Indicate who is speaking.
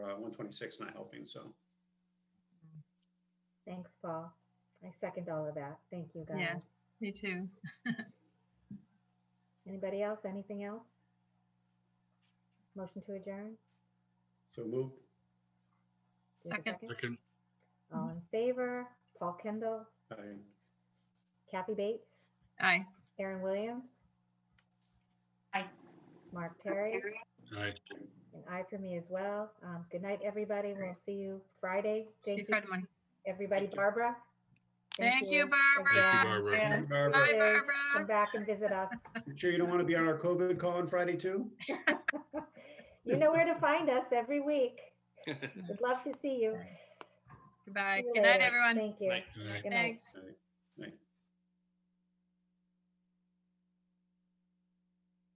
Speaker 1: 126 uh, not helping, so.
Speaker 2: Thanks, Paul. I second all of that. Thank you,
Speaker 3: Yeah.
Speaker 2: guys.
Speaker 3: Me too.
Speaker 2: Anybody else? Anything else? Motion to adjourn?
Speaker 1: So moved.
Speaker 2: Do we have a
Speaker 3: Second.
Speaker 4: Second,
Speaker 2: All in favor? Paul Kendall,
Speaker 1: Aye.
Speaker 2: Kathy Bates,
Speaker 3: Aye.
Speaker 2: Aaron Williams?
Speaker 5: Aye.
Speaker 2: Mark Terry?
Speaker 4: aye.
Speaker 2: And I for me as well. Um, Good night, everybody. We'll see you Friday.
Speaker 3: See you
Speaker 2: Thank
Speaker 3: Friday
Speaker 2: you,
Speaker 3: morning.
Speaker 2: everybody.
Speaker 1: Thank you.
Speaker 2: Barbara?
Speaker 3: Thank you, Barbara.
Speaker 2: Again.
Speaker 4: Thank you, Barbara.
Speaker 5: Yeah.
Speaker 1: Barbara,
Speaker 3: Bye,
Speaker 2: Please
Speaker 3: Barbara.
Speaker 2: Come back and visit us.
Speaker 1: you sure you don't want to be on our COVID call on Friday too?
Speaker 2: You know where to find us every week. We'd love to see you.
Speaker 3: Goodbye.
Speaker 2: See you
Speaker 3: Good night,
Speaker 2: later.
Speaker 3: everyone.
Speaker 2: Thank you.
Speaker 1: Night.
Speaker 4: Aye.
Speaker 2: Good night.
Speaker 3: Thanks.
Speaker 1: Aye. Aye.